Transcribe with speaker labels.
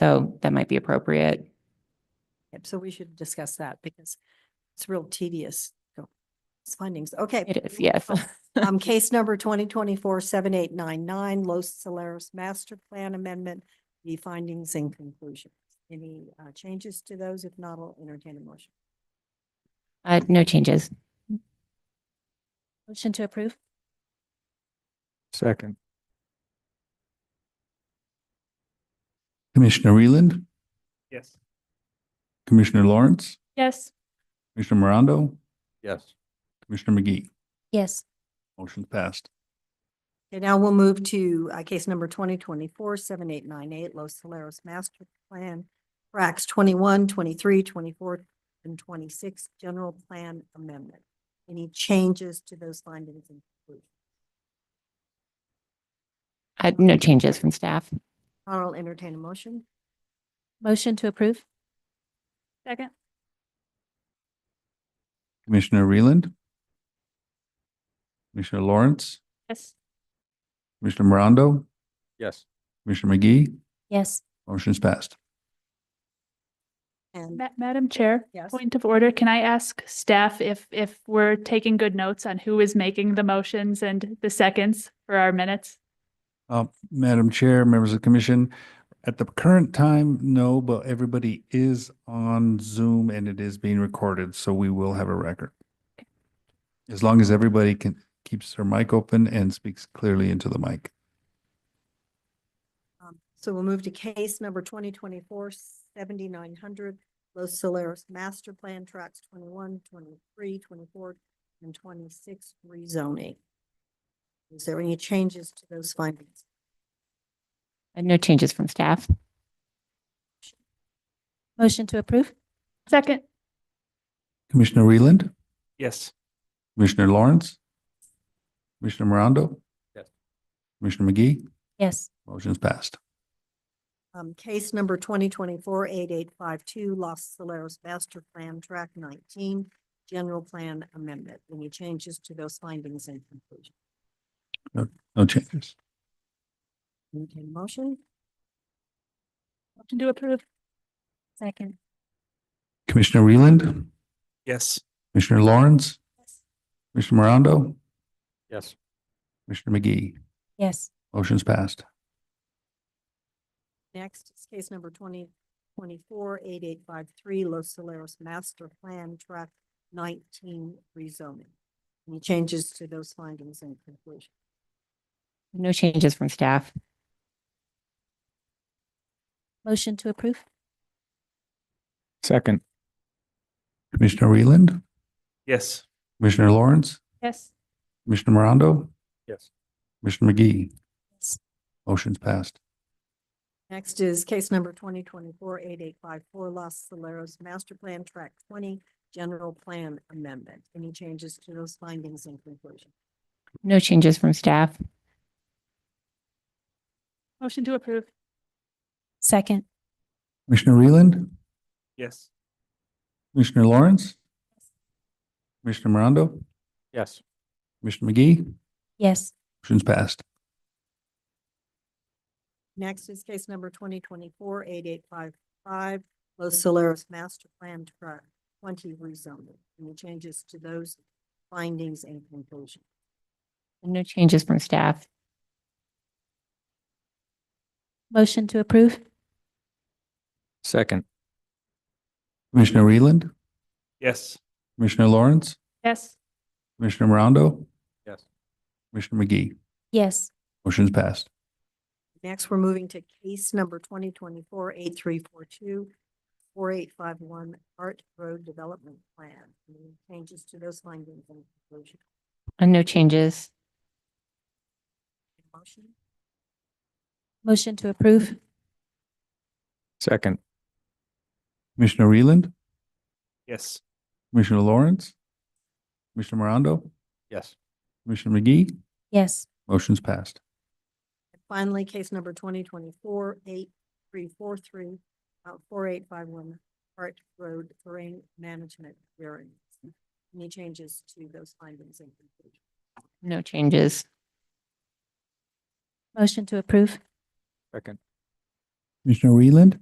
Speaker 1: So that might be appropriate.
Speaker 2: Yep, So we should discuss that because it's real tedious. So, It's findings, okay.
Speaker 1: It is, yes.
Speaker 2: Um, case number twenty twenty-four seven eight nine nine, Los Solares Master Plan Amendment, the findings and conclusions. Any uh, changes to those? If not, I'll entertain a motion.
Speaker 1: Uh, no changes.
Speaker 3: Motion to approve?
Speaker 4: Second. Commissioner Reland,
Speaker 5: Yes.
Speaker 4: Commissioner Lawrence,
Speaker 3: Yes.
Speaker 4: Commissioner Morondo,
Speaker 5: Yes.
Speaker 4: Commissioner McGee.
Speaker 3: Yes.
Speaker 4: Motion passed.
Speaker 2: Okay, now we'll move to uh, case number twenty twenty-four seven eight nine eight, Los Solares Master Plan, Racks 21, 23, 24, and twenty-six, General Plan Amendment. Any changes to those findings and conclusions?
Speaker 1: Uh, no changes from staff.
Speaker 2: I'll entertain a motion.
Speaker 3: Motion to approve? Second?
Speaker 4: Commissioner Reland, Commissioner Lawrence,
Speaker 3: Yes.
Speaker 4: Commissioner Morondo,
Speaker 5: Yes.
Speaker 4: Commissioner McGee.
Speaker 3: Yes.
Speaker 4: Motion's passed.
Speaker 2: And
Speaker 6: Ma- Madam Chair?
Speaker 2: Yes.
Speaker 6: Point of order, can I ask staff if, if we're taking good notes on who is making the motions and the seconds for our minutes?
Speaker 4: Uh, Madam Chair, members of the commission, at the current time, no, but everybody is on Zoom and it is being recorded, so we will have a record. As long as everybody can, keeps their mic open and speaks clearly into the mic.
Speaker 2: um, so we'll move to case number twenty twenty-four seventy-nine hundred, Los Solares Master Plan Tracks 21, 23, 24, and twenty-six rezoning. Is there any changes to those findings?
Speaker 1: Uh, no changes from staff.
Speaker 3: Motion to approve?
Speaker 6: Second?
Speaker 4: Commissioner Reland,
Speaker 5: Yes.
Speaker 4: Commissioner Lawrence, Commissioner Morondo.
Speaker 5: Yes.
Speaker 4: Commissioner McGee,
Speaker 3: Yes.
Speaker 4: motion's passed.
Speaker 2: Um, case number twenty twenty-four eight eight five two, Los Solares Master Plan Track nineteen, General Plan Amendment. Any changes to those findings and conclusions?
Speaker 4: No changes.
Speaker 2: Entertain a motion?
Speaker 6: Motion to approve?
Speaker 3: Second?
Speaker 4: Commissioner Reland,
Speaker 5: Yes.
Speaker 4: Commissioner Lawrence, Commissioner Morondo,
Speaker 5: Yes.
Speaker 4: Commissioner McGee,
Speaker 3: Yes.
Speaker 4: motion's passed.
Speaker 2: Next is case number twenty twenty-four eight eight five three, Los Solares Master Plan Track nineteen rezoning. Any changes to those findings and conclusion?
Speaker 1: No changes from staff.
Speaker 3: Motion to approve?
Speaker 5: Second.
Speaker 4: Commissioner Reland,
Speaker 5: Yes.
Speaker 4: Commissioner Lawrence,
Speaker 6: Yes.
Speaker 4: Commissioner Morondo,
Speaker 5: Yes.
Speaker 4: Commissioner McGee.
Speaker 3: Yes.
Speaker 4: Motion's passed.
Speaker 2: Next is case number twenty twenty-four eight eight five four, Los Solares Master Plan Track twenty, General Plan Amendment. Any changes to those findings and conclusion?
Speaker 1: No changes from staff.
Speaker 6: Motion to approve?
Speaker 3: Second?
Speaker 4: Commissioner Reland,
Speaker 5: Yes.
Speaker 4: Commissioner Lawrence, Commissioner Morondo,
Speaker 5: Yes.
Speaker 4: Commissioner McGee.
Speaker 3: Yes.
Speaker 4: Motion's passed.
Speaker 2: Next is case number twenty twenty-four eight eight five five, Los Solares Master Plan Track twenty rezoning. Any changes to those findings and conclusion?
Speaker 1: No changes from staff.
Speaker 3: Motion to approve?
Speaker 5: Second.
Speaker 4: Commissioner Reland,
Speaker 5: Yes.
Speaker 4: Commissioner Lawrence,
Speaker 6: Yes.
Speaker 4: Commissioner Morondo.
Speaker 5: Yes.
Speaker 4: Commissioner McGee.
Speaker 3: Yes.
Speaker 4: Motion's passed.
Speaker 2: Next, we're moving to case number twenty twenty-four eight three four two, four eight five one, Art Road Development Plan. Any changes to those findings and conclusion?
Speaker 1: Uh, no changes.
Speaker 2: Motion?
Speaker 3: Motion to approve?
Speaker 5: Second.
Speaker 4: Commissioner Reland,
Speaker 5: Yes.
Speaker 4: Commissioner Lawrence, Commissioner Morondo,
Speaker 5: Yes.
Speaker 4: Commissioner McGee.
Speaker 3: Yes.
Speaker 4: Motion's passed.
Speaker 2: And Finally, case number twenty twenty-four eight three four three, uh, four eight five one, Art Road Terrain Management Variance. Any changes to those findings and conclusion?
Speaker 1: No changes.
Speaker 3: Motion to approve?
Speaker 5: Second.
Speaker 4: Commissioner Reland?